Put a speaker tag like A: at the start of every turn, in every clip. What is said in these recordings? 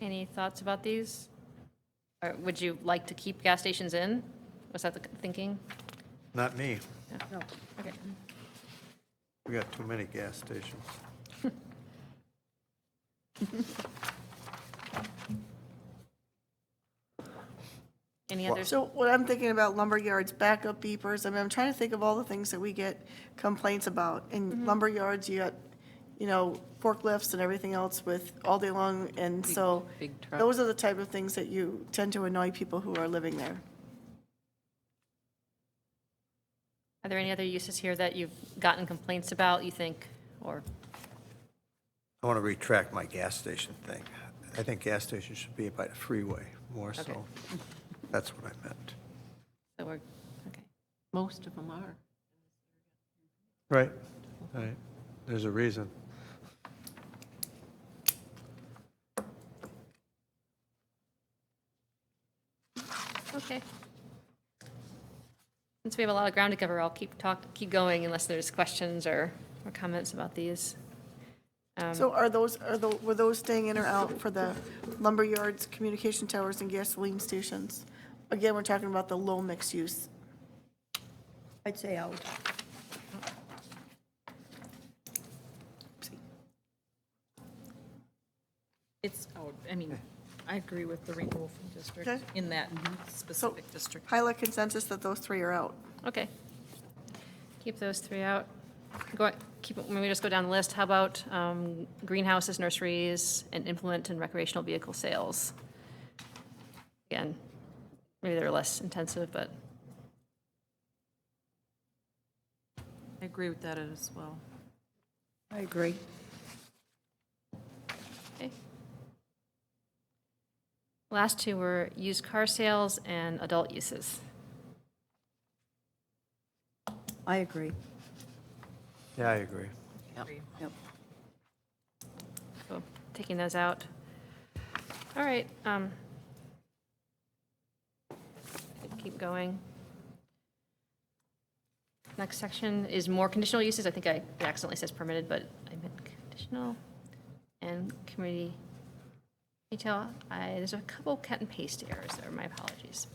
A: Any thoughts about these? Or would you like to keep gas stations in? Was that the thinking?
B: Not me.
A: Okay.
B: We got too many gas stations.
A: Any
B: Well-
A: others?
C: So what I'm thinking about lumberyards, backup beepers, I mean, I'm trying to think of all the things that we get complaints about. In
D: Mm-hmm.
C: lumberyards, you got, you know, forklifts and everything else with all day long, and so
D: big trucks.
C: those are the type of things that you tend to annoy people who are living there.
A: Are there any other uses here that you've gotten complaints about, you think, or,
B: I want to retract my gas station thing. I think gas stations should be by the freeway more so. That's what I meant.
A: that we're, okay.
D: Most of them are.
B: Right, right. There's a reason.
A: Okay. Since we have a lot of ground to cover, I'll keep talk, keep going unless there's questions or, or comments about these.
D: Um,
C: So are those, are the, were those staying in or out for the lumberyards, communication towers, and gasoline stations? Again, we're talking about the low mixed use.
E: I'd say out.
F: It's, out. I mean, I agree with the removal from district
C: Okay.
F: in that
C: So
F: specific district.
C: pilot consensus that those three are out.
A: Okay. Keep those three out. Go, keep, when we just go down the list, how about um, greenhouses, nurseries, and implement and recreational vehicle sales? Again, maybe they're less intensive, but,
F: I agree with that as well.
E: I agree.
A: okay. Last two were used car sales and adult uses.
E: I agree.
B: Yeah, I agree.
E: Yep.
A: So taking those out. All right. um, Keep going. Next section is more conditional uses. I think I it accidentally says permitted, but I meant conditional. And community retail. I, there's a couple cut and paste errors there. My apologies.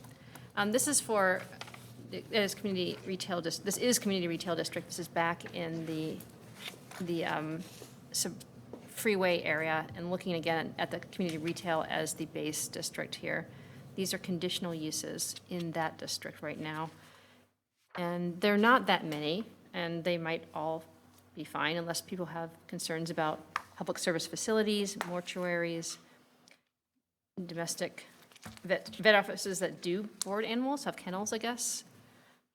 A: Um, This is for, it is community retail, dis- this is community retail district. This is back in the the um, sub- freeway area and looking again at the community retail as the base district here. These are conditional uses in that district right now. And they're not that many, and they might all be fine unless people have concerns about public service facilities, mortuaries, domestic vet, vet offices that do board animals, have kennels, I guess.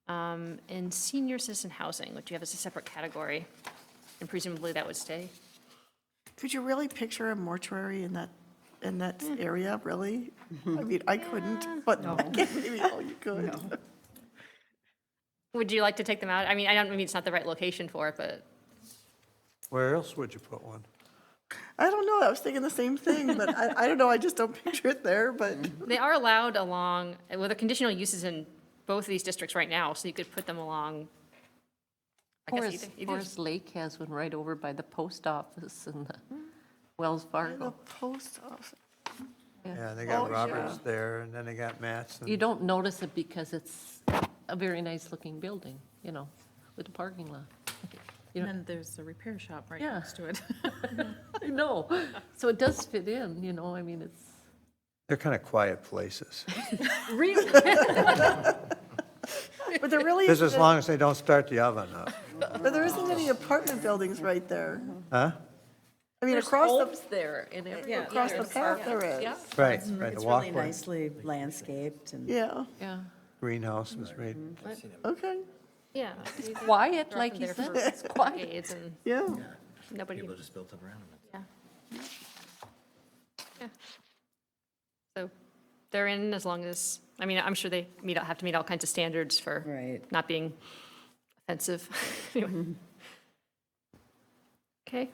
A: Um, And senior citizen housing, which you have as a separate category. And presumably that would stay.
C: Could you really picture a mortuary in that, in that area, really? I mean, I couldn't, but I guess maybe all you could.
A: Would you like to take them out? I mean, I don't, I mean, it's not the right location for it, but,
B: Where else would you put one?
C: I don't know, I was thinking the same thing, but I, I don't know, I just don't picture it there, but
A: they are allowed along, well, the conditional uses in both of these districts right now, so you could put them along. I guess
D: Forest,
A: either- either-
D: Forest Lake has one right over by the post office and the Wells
C: the
D: Fargo.
C: post office.
B: Yeah, they got
C: Oh,
B: Roberts
C: yeah.
B: there and then they got Mattson.
D: You don't notice it because it's a very nice-looking building, you know, with a parking lot. You
F: And
D: know,
F: then there's the repair shop right
D: Yeah.
F: next to it.
D: I know, so it does fit in, you know, I mean, it's.
B: They're kind of quiet places.
D: Really?
C: But there really,
B: Just as
C: isn't-
B: long as they don't start the oven up.
C: but there isn't any apartment buildings right there.
B: Huh?
C: I mean, across the,
D: there and everything.
C: across the path there is,
B: Right, right, the
E: It's really
B: walkway.
E: nicely landscaped and
C: yeah,
D: Yeah,
B: Greenhouse is right.
C: okay,
A: Yeah.
D: quiet,
A: They're
D: like
A: often
D: you
A: there
D: said,
A: for
D: it's quiet.
A: decades and
C: yeah.
A: nobody,
G: People just built up around them.
A: yeah. Yeah. So they're in as long as, I mean, I'm sure they meet, have to meet all kinds of standards for.
E: Right.
A: not being offensive. Anyway. Okay.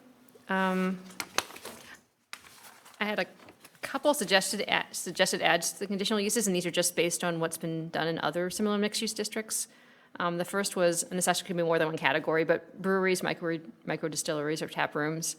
A: um, I had a couple suggested, a- suggested adds to the conditional uses, and these are just based on what's been done in other similar mixed-use districts. Um, The first was, and this actually could be more than one category, but breweries, micro, micro distilleries, or tap rooms.